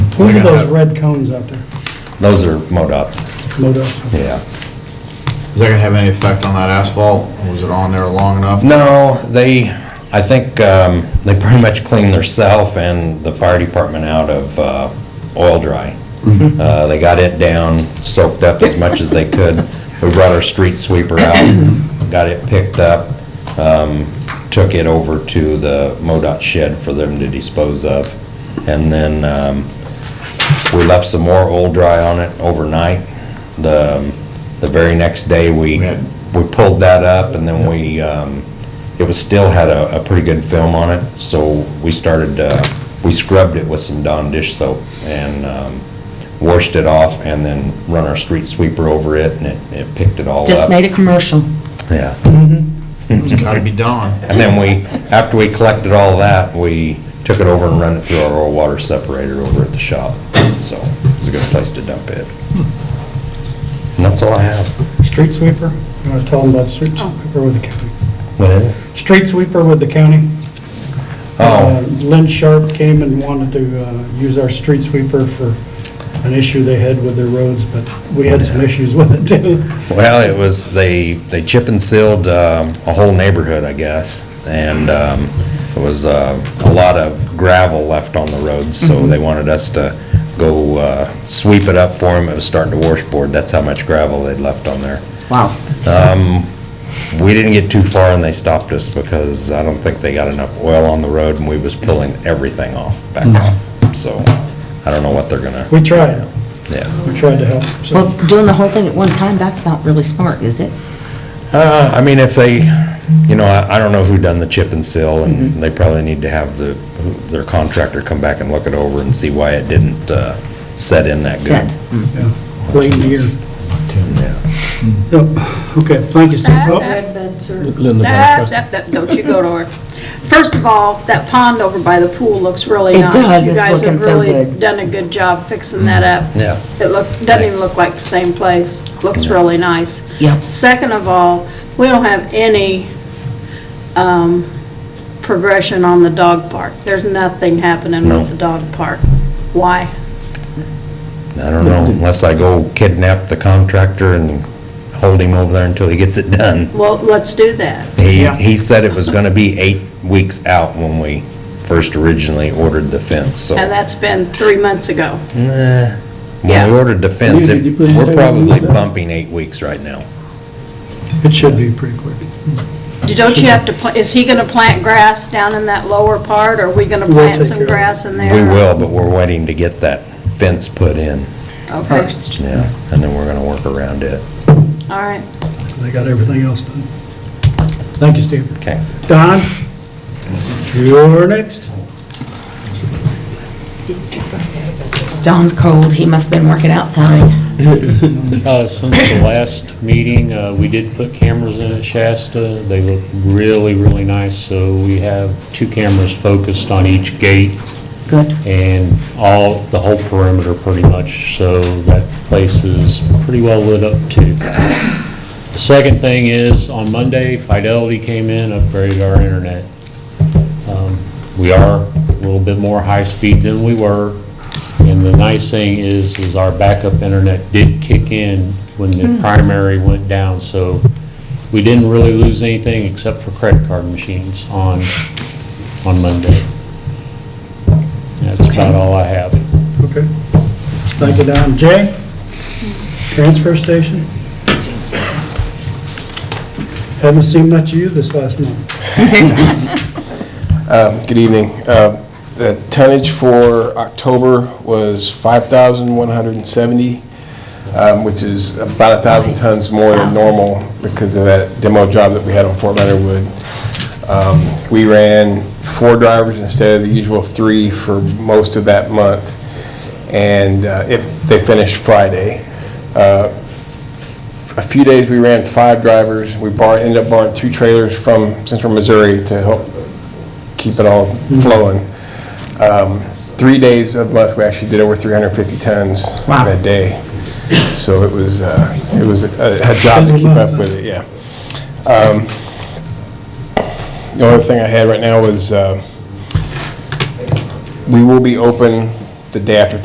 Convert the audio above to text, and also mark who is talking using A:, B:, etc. A: Those
B: We're
A: are
B: gonna
A: those
B: have-
A: red cones out there,
C: Those are MoDOT's,
A: MoDOT.
C: yeah.
B: Is that gonna have any effect on that asphalt? Was it on there long enough?
C: No, they, I think, um, they pretty much cleaned theirself and the fire department out of, uh, oil dry. Uh, they got it down, soaked up as much as they could. We brought our street sweeper out, got it picked up, um, took it over to the MoDOT shed for them to dispose of. And then, um, we left some more oil dry on it overnight. The, um, the very next day,
B: We
C: we,
B: had-
C: we pulled that up and then we, um, it was, still had a, a pretty good film on it, so we started, uh, we scrubbed it with some Dawn dish soap and, um, washed it off and then run our street sweeper over it and it, it picked it all up.
D: Just made a commercial.
C: Yeah.
B: It's gotta be done.
C: And then we, after we collected all that, we took it over and run it through our oil water separator over at the shop. So it's a good place to dump it. And that's all I have.
A: Street sweeper, you want to tell them about street sweeper with the county?
C: What is it?
A: Street sweeper with the county. Uh,
C: Oh,
A: Lynn Sharp came and wanted to uh, use our street sweeper for an issue they had with their roads, but we had some issues with it too.
C: well, it was, they, they chip and sealed um, a whole neighborhood, I guess. And um, it was uh, a lot of gravel left on the road, so they wanted us to go uh, sweep it up for them. It was starting to washboard. That's how much gravel they'd left on there.
D: Wow.
C: We didn't get too far and they stopped us because I don't think they got enough oil on the road and we was pulling everything off, back off. So I don't know what they're gonna,
A: We tried,
C: yeah.
A: we tried to help, so.
D: Well, doing the whole thing at one time, that's not really smart, is it?
C: Uh, I mean, if they, you know, I, I don't know who done the chip and seal and they probably need to have the, who- their contractor come back and look it over and see why it didn't, uh, set in that
D: Said.
C: good.
A: yeah, Late in the year.
C: Yeah.
A: Yep, Okay, thank you, Steve. Oh,
E: Red bed, sir.
F: That- that- that- Don't you go to her. First of all, that pond over by the pool looks really
D: It
F: nice.
D: does. It's looking so
F: You guys have really
D: good.
F: done a good job fixing that up.
C: Mm. Yeah.
F: It looked, doesn't even
C: Thanks.
F: look like the same place. Looks
C: Yeah.
F: really nice.
D: Yep.
F: Second of all, we don't have any um, progression on the dog park. There's nothing happening
C: No.
F: with the dog park. Why?
C: I don't know, unless I go kidnap the contractor and hold him over there until he gets it done.
F: Well, let's do that.
C: He,
A: Yeah.
C: he said it was going to be eight weeks out when we first originally ordered the fence, so.
F: And that's been three months ago.
C: Nah. When
F: Yeah.
C: we ordered the fence,
G: Did you
C: it-
G: put it
C: we're
G: down?
C: probably bumping eight weeks right now.
A: It should be pretty quick.
F: Don't you have to, pla- is he gonna plant grass down in that lower part, or are we gonna
A: We'll take
F: plant
A: care
F: some
A: of it.
F: grass in there?
C: We will, but we're waiting to get that fence put in,
F: Okay,
C: yeah, and then we're going to work around it.
F: all right.
A: They got everything else done. Thank you, Steve.
C: Okay.
A: Don, you're next.
D: Don's cold, he must've been working outside.
H: Uh, Since the last meeting, uh, we did put cameras in at Shasta. They look really, really nice, so we have two cameras focused on each gate
D: Good.
H: and all, the whole perimeter pretty much, so that place is pretty well lit up too. The second thing is, on Monday, Fidelity came in, upgraded our internet. Um, We are a little bit more high-speed than we were, and the nice thing is, is our backup internet did kick in when the primary went down, so we didn't really lose anything except for credit card machines on, on Monday. That's about all I have.
A: Okay. Thank you, Don. Jay? Transfer station? Haven't seen much of you this last month.
G: Um, Good evening. Uh, The tonnage for October was 5,170, um, which is about 1,000 tons more than normal because of that demo job that we had on Fort Leonard Wood. Um, We ran four drivers instead of the usual three for most of that month, and uh, if they finished Friday. Uh, a few days, we ran five drivers. We bar, ended up borrowing two trailers from central Missouri to help keep it all flowing. Um, Three days of the month, we actually did over 350 tons
D: Wow.
G: in a day. So it was, uh, it was a a job to keep up with it, yeah. Um, The only thing I had right now was, uh, we will be open the day after